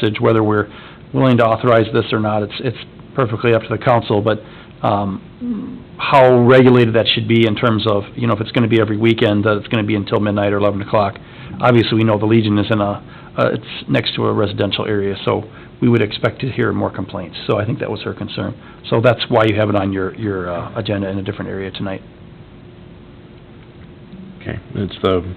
usage, whether we're willing to authorize this or not, it's, it's perfectly up to the council, but, um, how regulated that should be in terms of, you know, if it's gonna be every weekend, that it's gonna be until midnight or eleven o'clock. Obviously, we know the Legion is in a, uh, it's next to a residential area, so we would expect to hear more complaints, so I think that was her concern. So that's why you have it on your, your, uh, agenda in a different area tonight. Okay, it's the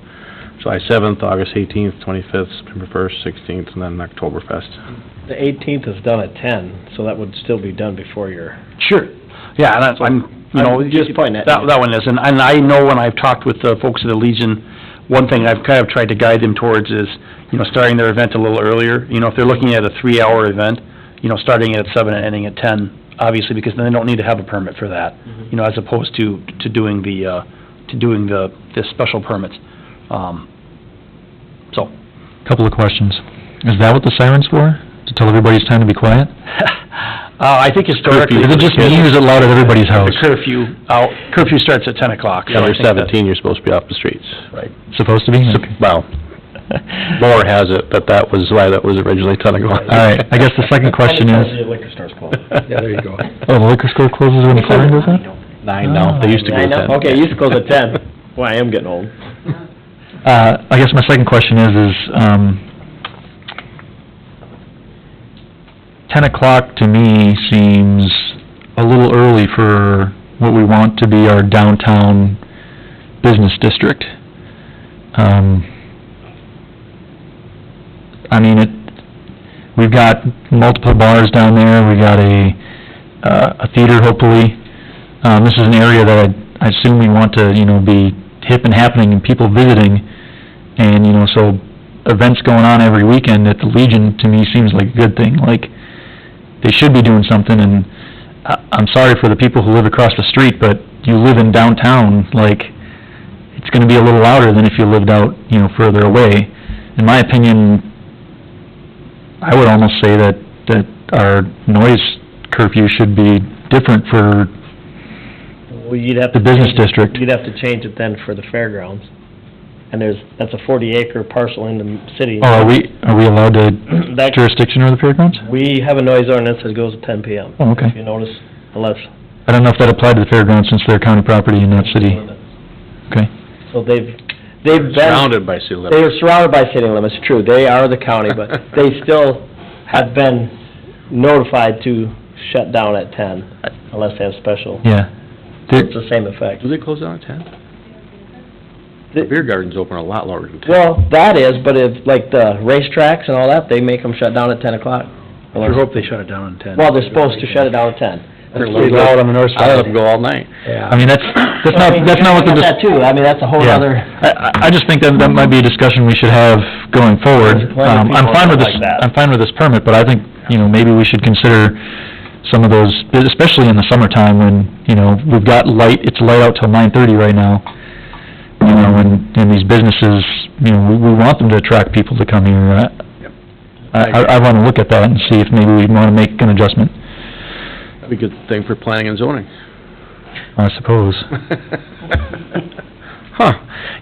July seventh, August eighteenth, twenty-fifth, September first, sixteenth, and then Oktoberfest. The eighteenth is done at ten, so that would still be done before your, Sure. Yeah, and I- I'm, you know... I'm just pointing at That, you. that one is, and, and I know when I've talked with the folks at the Legion, one thing I've kind of tried to guide them towards is, you know, starting their event a little earlier. You know, if they're looking at a three-hour event, you know, starting at seven and ending at ten, obviously, because then they don't need to have a permit for that. You know, as opposed to, to doing the, uh, to doing the, the special permits. Um, so, Couple of questions. Is that what the siren's for? To tell everybody it's time to be quiet? uh, I think historically... Is it just me or is it loud at everybody's house? The curfew, out- curfew starts at ten o'clock. so I After think that- seventeen, you're supposed to be off the streets. Right. Supposed to be? Okay. Well, lore has it that that was why that was originally ten o'clock. All right, I guess the second question is, the liquor store's closed. Yeah, there you go. oh, the liquor Ah. store closes when the siren goes off? Nine now, they used to go Nine ten. now? Okay, used to go to ten. Well, I am getting old. Uh, I guess my second question is, is, um, ten o'clock to me seems a little early for what we want to be our downtown business district. Um, I mean, it, we've got multiple bars down there, we got a, uh, a theater hopefully. Um, this is an area that I, I assume we want to, you know, be hip and happening and people visiting. And, you know, so events going on every weekend at the Legion to me seems like a good thing, like, they should be doing something and I, I'm sorry for the people who live across the street, but you live in downtown, like, it's gonna be a little louder than if you lived out, you know, further away. In my opinion, I would almost say that, that our noise curfew should be different for Well, you'd have to... The business change it- district. You'd have to change it then for the fairgrounds. And there's, that's a forty acre parcel in the city. Oh, are we, are we allowed to That, jurisdiction over the fairgrounds? we have a noise ordinance that goes to ten PM, Oh, if okay. you notice, unless... I don't know if that applied to the fairgrounds since they're county property in that city. Okay. So they've, they've been... Surrounded by sea They level. are surrounded by city limits, true, they are the county, but they still have been notified to shut down at ten, unless they have special, Yeah. it's There- the same effect. Do they close down at ten? The The- beer garden's open a lot longer than ten. Well, that is, but if, like, the racetracks and all that, they make them shut down at ten o'clock. I hope they shut it down in ten. Well, they're supposed to shut it down at ten. That's pretty loud on the north I let side. them go all night. I mean, that's, that's not, that's not what the, Look at That dis- too, I mean, that's a whole Yeah. other, I, I- I just think that, that might be a discussion we should have going forward. There's plenty of Um, I'm people fine that with this, like that. I'm fine with this permit, but I think, you know, maybe we should consider some of those, especially in the summertime when, you know, we've got light, it's light out till nine-thirty right now. You know, and, and these businesses, you know, we, we want them to attract people to come here. I- I, I wanna look at that and see if maybe we wanna make an adjustment, That'd be a good thing for planning and zoning. I suppose. Huh,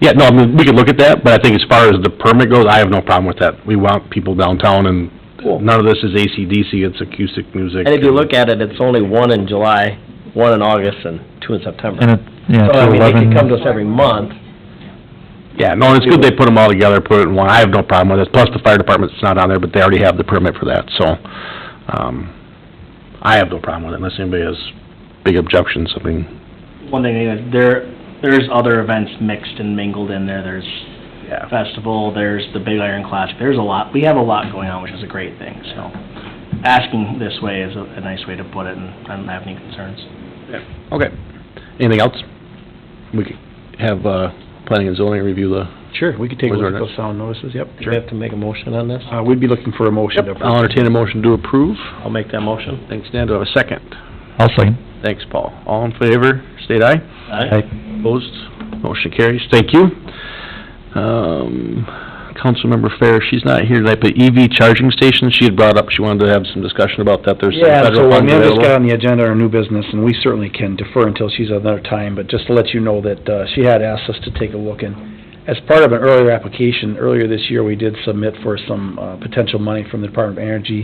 yeah, no, I mean, we could look at that, but I think as far as the permit goes, I have no problem with that. We want people downtown and none of this is AC/DC. it's acoustic music. and if you look at it, it's only one in July, one in August, and two in September. And it, yeah, So, I till mean, they eleven. could come to us every month, Yeah, no, it's good they put them all together, put it in one, I have no problem with it, plus the fire department's not on there, but they already have the permit for that, so, um, I have no problem with it unless anybody has big objections, I mean, one thing, uh, there, there's other events mixed and mingled in there, there's yeah. festival, there's the Big Iron Clash, there's a lot, we have a lot going on, which is a great thing, so. Asking this way is a a nice way to put it, and I don't have any concerns. Okay, anything else? We could have, uh, planning and zoning review the, Sure, we could take a Was look there at an- those sound notices, yep, do we sure. have to make a motion on this? Uh, we'd be looking for a motion to I'll approve. entertain a motion to approve. I'll make that motion. Thanks, Dan, do I have a second? I'll second. Thanks, Paul. All in favor, state aye. Aye. Opposed, motion carries. Thank you. Um, Councilmember Fair, she's not here tonight, but EV charging stations, she had brought up, she wanted to have some discussion about that. There's some Yeah, so federal funds Amanda's got available. on the agenda our new business, and we certainly can defer until she's another time, but just to let you know that, uh, she had asked us to take a look and as part of an earlier application, earlier this year, we did submit for some uh, potential money from the Department of Energy